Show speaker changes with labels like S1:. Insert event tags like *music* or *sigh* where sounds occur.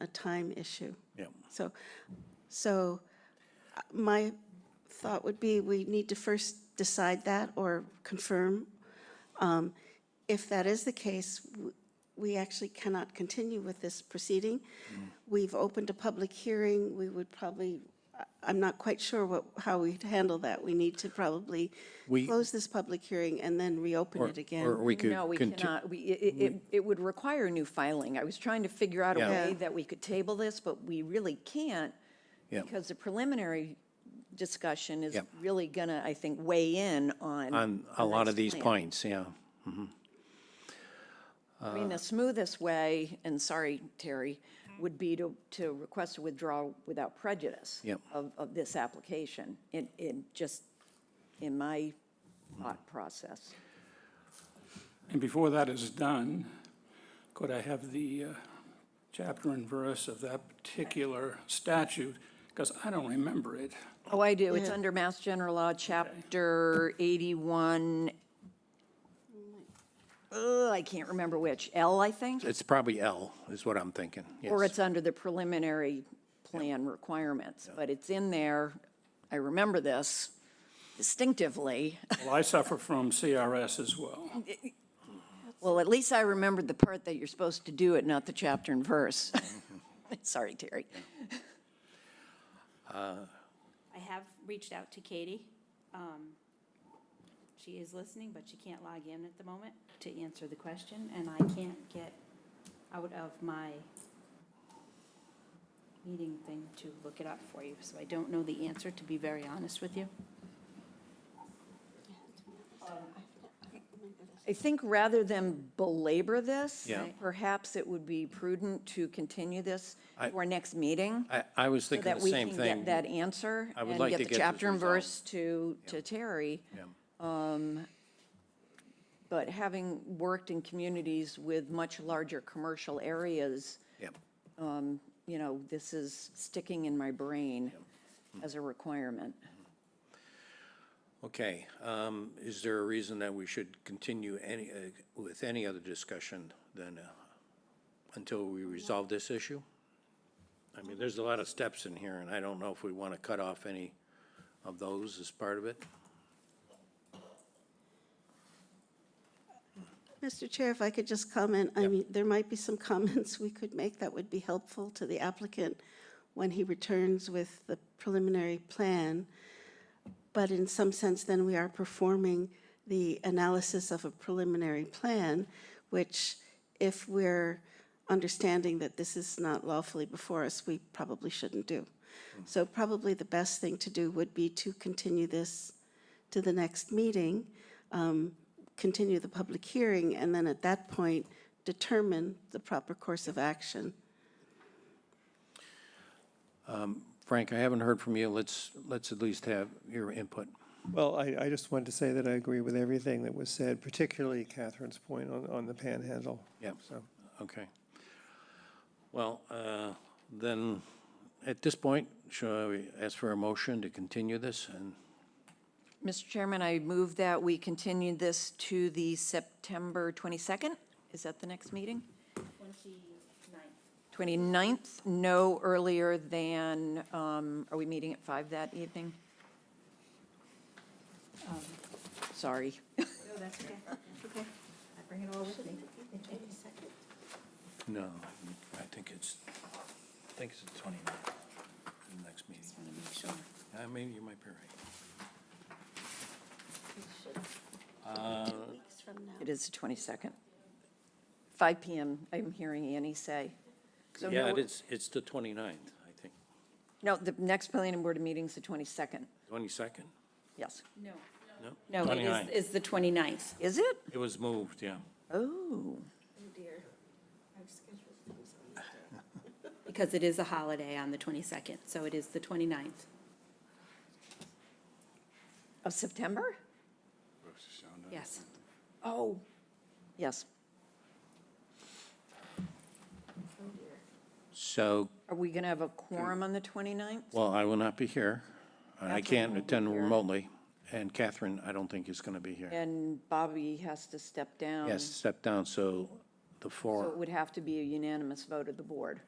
S1: a time issue.
S2: Yeah.
S1: So, so uh, my thought would be, we need to first decide that or confirm. Um, If that is the case, w- we actually cannot continue with this proceeding.
S2: Mm-hmm.
S1: We've opened a public hearing, we would probably, I- I'm not quite sure what, how we'd handle that. We need to probably
S2: We-
S1: close this public hearing and then reopen it again.
S2: Or we could.
S3: No, we
S2: conti-
S3: cannot. We, it, it, it would require new filing. I was trying to figure out a
S2: Yeah.
S3: way
S1: Yeah.
S3: that we could table this, but we really can't
S2: Yeah.
S3: because the preliminary discussion is
S2: Yeah.
S3: really gonna, I think, weigh in on.
S2: On a
S3: the
S2: lot of
S3: next
S2: these
S3: plan.
S2: points, yeah.
S3: I mean, the smoothest way, and sorry, Terry, would be to, to request a withdrawal without prejudice.
S2: Yep.
S3: Of, of this application, in, in just, in my thought process.
S4: And before that is done, could I have the uh, chapter and verse of that particular statute? Because I don't remember it.
S3: Oh, I do. It's under Mass General Law, Chapter 81. Ugh, I can't remember which, L, I think?
S2: It's probably L is what I'm thinking,
S3: Or
S2: yes.
S3: it's under the preliminary plan requirements, but it's in there. I remember this
S2: *laughs*
S3: distinctively.
S4: Well, I suffer from CRS as well.
S3: Well, at least I remembered the part that you're supposed to do it, not the chapter and verse.
S2: Mm-hmm.
S3: *laughs* Sorry, Terry.
S5: I have reached out to Katie. Um, She is listening, but she can't log in at the moment to answer the question, and I can't get out of my meeting thing to look it up for you, so I don't know the answer, to be very honest with you.
S3: I think rather than belabor this,
S2: Yeah.
S3: perhaps it would be prudent to continue this
S2: I-
S3: to our next meeting.
S2: I, I was
S3: so
S2: thinking
S3: that
S2: the
S3: we
S2: same
S3: can get
S2: thing.
S3: that answer
S2: I would
S3: and
S2: like
S3: get
S2: to
S3: the
S2: get this
S3: chapter and
S2: resolved.
S3: verse to, to Terry. Um, But having worked in communities with much larger commercial areas, um,
S2: Yeah.
S3: you know, this is sticking in my brain
S2: Hmm.
S3: as a requirement.
S2: Okay, um, is there a reason that we should continue any, uh, with any other discussion than, uh, until we resolve this issue? I mean, there's a lot of steps in here, and I don't know if we want to cut off any of those as part of it.
S1: Mr. Chair, if I could just comment, I mean, there might be some *laughs* comments we could make that would be helpful to the applicant when he returns with the preliminary plan. But in some sense, then we are performing the analysis of a preliminary plan, which if we're understanding that this is not lawfully before us, we probably shouldn't do. So probably the best thing to do would be to continue this to the next meeting continue the public hearing, and then at that point, determine the proper course of action.
S2: Frank, I haven't heard from you. Let's, let's at least have your input.
S6: Well, I, I just wanted to say that I agree with everything that was said, particularly Catherine's point on, on the panhandle.
S2: Yeah.
S6: So,
S2: Okay. Well, uh, then, at this point, shall we ask for a motion to continue this? And
S3: Mr. Chairman, I move that we continue this to the September 22nd? Is that the next meeting?
S5: Twenty-ninth.
S3: 29th, no earlier than, um, are we meeting at 5 that evening? Sorry.
S5: No, that's okay, that's *laughs* okay. I bring it all with me.
S2: No, I think it's, I think it's the 29th, the next meeting.
S5: Just wanna make sure.
S2: I mean, you might be right.
S1: Two weeks from now.
S3: It is the 22nd. 5 PM, I'm hearing Annie say. So
S2: Yeah,
S3: no-
S2: it is, it's the 29th, I think.
S3: No, the next planning board meeting's the 22nd,
S2: 22nd?
S3: yes.
S5: No.
S2: No?
S5: No, it
S2: 29th.
S5: is, is the twenty-ninth.
S3: Is it?
S2: It was moved, yeah.
S3: Oh,
S5: Because it is a holiday on the 22nd, so it is the 29th.
S3: of September?
S5: Yes.
S3: Oh. Yes.
S2: So,
S3: Are we going to have a quorum on the 29th?
S2: well, I will not be here. and I
S3: Catherine
S2: can't
S3: won't be
S2: attend
S3: here.
S2: remotely, and Catherine, I don't think is going to be here.
S3: And Bobby has to step down.
S2: Yes, step down, so the four.
S3: So it would have to be a unanimous vote of the board.